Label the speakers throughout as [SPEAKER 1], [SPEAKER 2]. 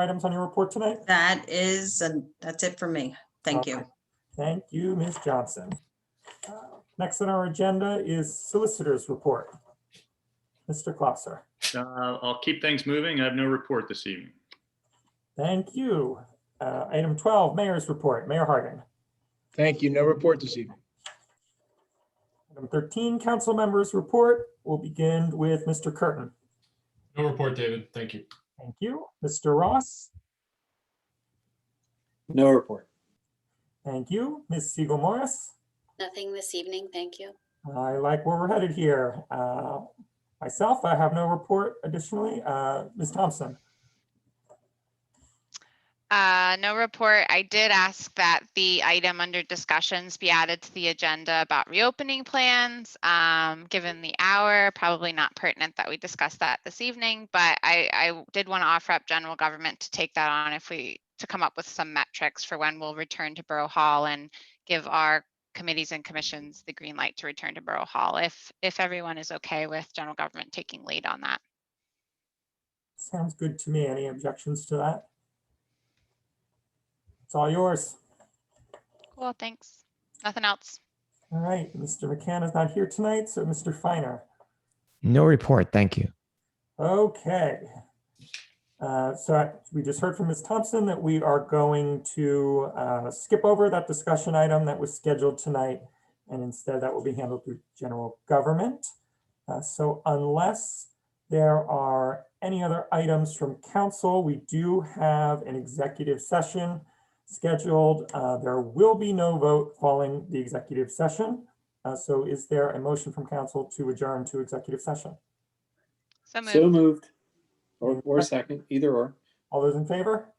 [SPEAKER 1] items on your report tonight?
[SPEAKER 2] That is, and that's it for me. Thank you.
[SPEAKER 1] Thank you, Ms. Johnson. Uh, Next on our agenda is solicitors' report. Mr. Klosser,
[SPEAKER 3] Uh, I'll keep things moving. I have no report this evening.
[SPEAKER 1] thank you. Uh, Item 12, mayor's report, Mayor Harding.
[SPEAKER 4] Thank you. No report this evening.
[SPEAKER 1] Item 13, council members' report. We'll begin with Mr. Curtin.
[SPEAKER 5] No report, David. Thank you.
[SPEAKER 1] Thank you. Mr. Ross,
[SPEAKER 4] No report.
[SPEAKER 1] thank you. Ms. Siegel Morris,
[SPEAKER 6] Nothing this evening, thank you.
[SPEAKER 1] I like where we're headed here. Uh, Myself, I have no report additionally. Uh, Ms. Thompson,
[SPEAKER 7] Uh, no report. I did ask that the item under discussions be added to the agenda about reopening plans. Um, given the hour, probably not pertinent that we discuss that this evening, but I, I did want to offer up general government to take that on if we, to come up with some metrics for when we'll return to Borough Hall and give our committees and commissions the green light to return to Borough Hall, if, if everyone is okay with general government taking lead on that.
[SPEAKER 1] sounds good to me. Any objections to that? It's all yours.
[SPEAKER 7] Cool, thanks. Nothing else.
[SPEAKER 1] All right, Mr. McCann is not here tonight, so Mr. Finer.
[SPEAKER 8] No report, thank you.
[SPEAKER 1] Okay. Uh, So I- we just heard from Ms. Thompson that we are going to uh, skip over that discussion item that was scheduled tonight, and instead that will be handled through general government. Uh, So unless there are any other items from council, we do have an executive session scheduled. Uh, There will be no vote following the executive session. Uh, So is there a motion from council to adjourn to executive session?
[SPEAKER 7] So
[SPEAKER 4] So
[SPEAKER 7] moved.
[SPEAKER 4] moved. Or, or second, either or.
[SPEAKER 1] All those in favor?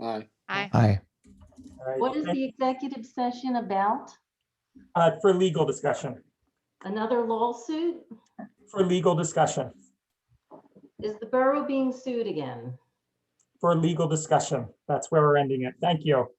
[SPEAKER 4] Aye.
[SPEAKER 7] Aye.
[SPEAKER 8] Aye.
[SPEAKER 1] All right,
[SPEAKER 9] What is
[SPEAKER 1] thank-
[SPEAKER 9] the executive session about?
[SPEAKER 1] uh, For legal discussion,
[SPEAKER 9] Another lawsuit?
[SPEAKER 1] for legal discussion,
[SPEAKER 9] Is the borough being sued again?
[SPEAKER 1] for legal discussion. That's where we're ending it. Thank you.